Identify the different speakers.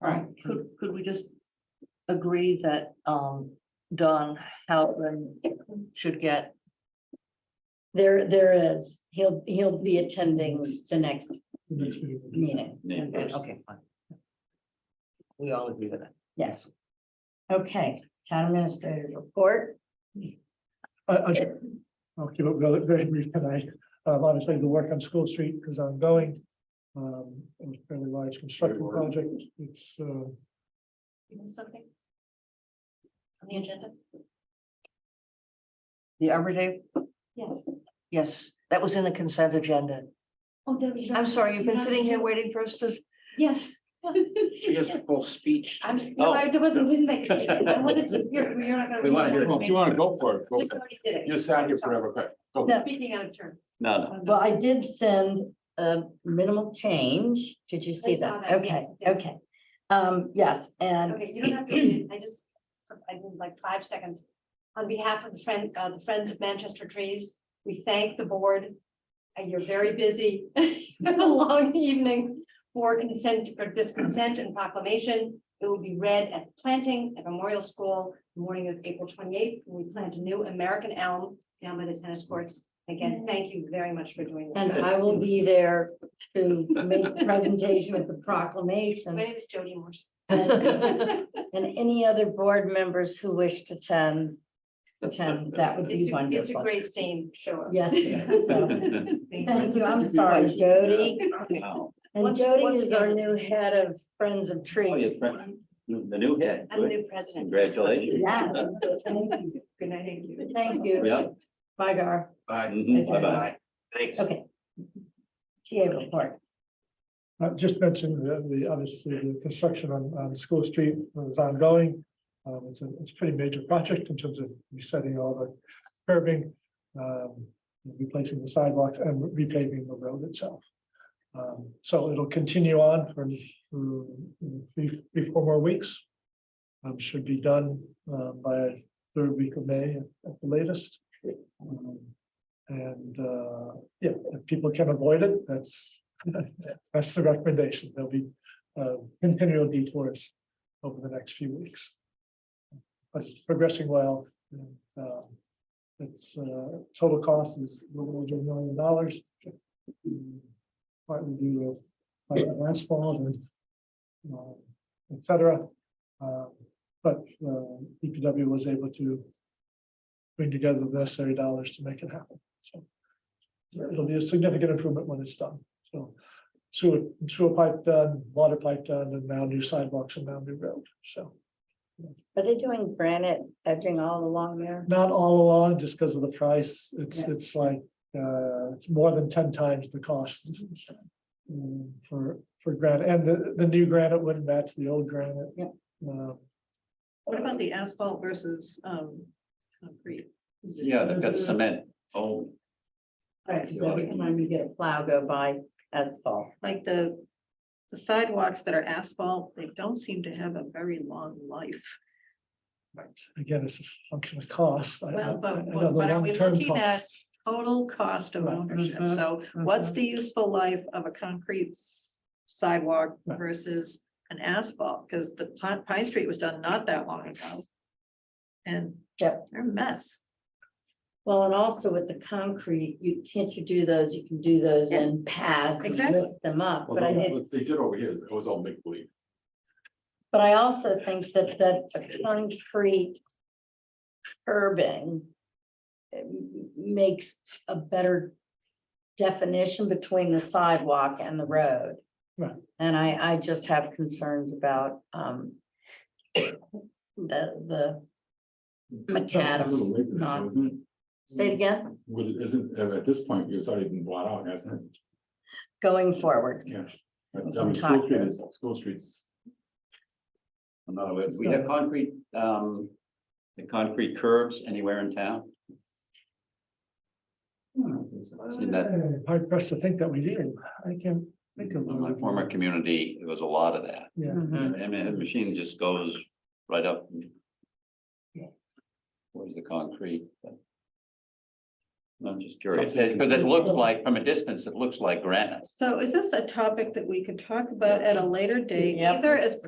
Speaker 1: Right.
Speaker 2: Could, could we just agree that, um, Don Howland should get,
Speaker 1: There, there is, he'll, he'll be attending the next meeting,
Speaker 3: Name
Speaker 2: and- and-
Speaker 3: first.
Speaker 2: okay, fine. We all agree with that.
Speaker 1: yes. Okay, town administrator's report,
Speaker 4: I, I should, I'll keep it very, very brief tonight. Um, obviously the work on School Street is ongoing. Um, it was a fairly large construction
Speaker 3: Very large.
Speaker 4: project. It's, uh,
Speaker 1: you know something? On the agenda?
Speaker 2: The Arbor Day,
Speaker 1: Yes.
Speaker 2: yes, that was in the consent agenda.
Speaker 1: Oh, Debbie. you don't-
Speaker 2: I'm sorry, you've
Speaker 1: you
Speaker 2: been
Speaker 1: don't
Speaker 2: sitting here
Speaker 1: have to-
Speaker 2: waiting for us to,
Speaker 1: Yes.
Speaker 3: She has a full speech.
Speaker 1: I'm, s- no,
Speaker 3: Oh.
Speaker 1: I wasn't in my, seat. I wanted to, you're, you're not gonna.
Speaker 3: We wanna hear it.
Speaker 5: Well, If you want to go for it, go
Speaker 1: We
Speaker 5: for it.
Speaker 1: already did it.
Speaker 5: You sat here forever, go ahead. go.
Speaker 1: No. Speaking out of turn.
Speaker 3: No, no.
Speaker 1: Well, I did send a minimal change. Did you see that?
Speaker 6: saw that,
Speaker 1: Okay,
Speaker 6: yes, yes.
Speaker 1: okay. Um, yes, and
Speaker 6: Okay, you don't have to, read it. I just, I need like five seconds. On behalf of the friend, uh, the Friends of Manchester Trees, we thank the board. And you're very busy, Been a long evening for consent, for this consent and proclamation. It will be read at planting at Memorial School, the morning of April twenty-eighth. We plant a new American elm down by the tennis courts. Again, thank you very much for doing
Speaker 1: And
Speaker 6: that.
Speaker 1: I will be there to make the presentation with the proclamation.
Speaker 6: My name is Jody Morse.
Speaker 1: And any other board members who wish to attend, attend, that would be
Speaker 6: It's a, it's a
Speaker 1: wonderful.
Speaker 6: great scene, sure.
Speaker 1: Yes. so, Thank you. I'm sorry, Jody.
Speaker 3: Wow.
Speaker 1: And
Speaker 6: Once-
Speaker 1: Jody
Speaker 6: once
Speaker 1: is our
Speaker 6: again-
Speaker 1: new head of Friends of
Speaker 3: Oh,
Speaker 1: Trees.
Speaker 3: yes, right. The new head.
Speaker 6: I'm the
Speaker 3: Good.
Speaker 6: new president.
Speaker 3: Congratulations.
Speaker 1: Yeah. Thank you.
Speaker 6: Good night, thank you.
Speaker 1: Thank you.
Speaker 3: Yeah.
Speaker 1: Bygar.
Speaker 3: Mhm. Bye-bye. Thanks.
Speaker 1: Okay. TA report.
Speaker 4: I Uh, just mentioned the, the, obviously, the construction on, on School Street is ongoing. Um, it's a, it's a pretty major project in terms of resetting all the curbing, um, replacing the sidewalks and repaving the road itself. Um, so it'll continue on for, for three, three, four more weeks. Um, should be done, uh, by third week of May at the latest. Um, And, uh, yeah, if people can avoid it, that's, that's the recommendation. There'll be uh, continual detours over the next few weeks. But it's progressing well. and, uh, It's uh, total cost is a little over a million dollars. mm, Partly due to like, asphalt and um, et cetera. Uh, But uh, DPW was able to bring together the necessary dollars to make it happen. So it'll be a significant improvement when it's done. So sewer, sewer pipe done, water pipe done, and now new sidewalks and now new road, so.
Speaker 1: Are they doing granite edging all along there?
Speaker 4: Not all along, just because of the price, it's,
Speaker 1: Yeah.
Speaker 4: it's like, uh, it's more than ten times the cost. um, For, for granite, and the, the new granite wouldn't match the old granite.
Speaker 1: Yeah.
Speaker 4: Uh,
Speaker 7: What about the asphalt versus um concrete?
Speaker 3: Yeah, they've got cement. Oh,
Speaker 1: Right, because every time you get a plow go by asphalt.
Speaker 7: Like the the sidewalks that are asphalt, they don't seem to have a very long life.
Speaker 4: Again, it's a function of cost. I- I-
Speaker 7: Well,
Speaker 4: I
Speaker 7: but
Speaker 4: know
Speaker 7: what
Speaker 4: the
Speaker 7: what are we
Speaker 4: long-term
Speaker 7: looking
Speaker 4: cost.
Speaker 7: at? Total cost of
Speaker 4: Right.
Speaker 7: ownership.
Speaker 1: Mhm.
Speaker 7: So what's the useful life of a concrete s- sidewalk
Speaker 4: Right.
Speaker 7: versus an asphalt? Because the Pine Pine Street was done not that long ago. And they're
Speaker 1: Yep.
Speaker 7: a mess.
Speaker 1: Well, and also with the concrete, you can't you do those, you can do those in pads and
Speaker 7: Exactly.
Speaker 1: lift them up,
Speaker 5: Well,
Speaker 1: but I
Speaker 5: no,
Speaker 1: did,
Speaker 5: what They did over here, it was all make believe.
Speaker 1: but I also think that that the concrete curbing um, makes a better definition between the sidewalk and the road.
Speaker 4: Right.
Speaker 1: And I, I just have concerns about, um, the, the
Speaker 5: Little
Speaker 1: macadam.
Speaker 5: late in this,
Speaker 1: not-
Speaker 5: isn't it?
Speaker 1: Say it again,
Speaker 5: Well, it isn't, uh, at this point, it's already been bought out, hasn't it?
Speaker 1: going forward.
Speaker 5: Yeah. But, I
Speaker 1: Some
Speaker 5: mean, School
Speaker 1: talk
Speaker 5: Street
Speaker 1: there.
Speaker 5: is, School Street's,
Speaker 3: I'm not aware. We have concrete, um, the concrete curbs anywhere in town. Hmm, Seen that
Speaker 4: Uh, Hard pressed to think that we did. I can't think of.
Speaker 3: in my former community, there was a lot of that.
Speaker 4: Yeah.
Speaker 1: Mhm.
Speaker 3: And the machine just goes right up. Where's the concrete? I'm just curious,
Speaker 5: Something-
Speaker 3: because it looks like, from a distance, it looks like granite.
Speaker 7: So is this a topic that we could talk about at a later date,
Speaker 1: Yep.
Speaker 7: either as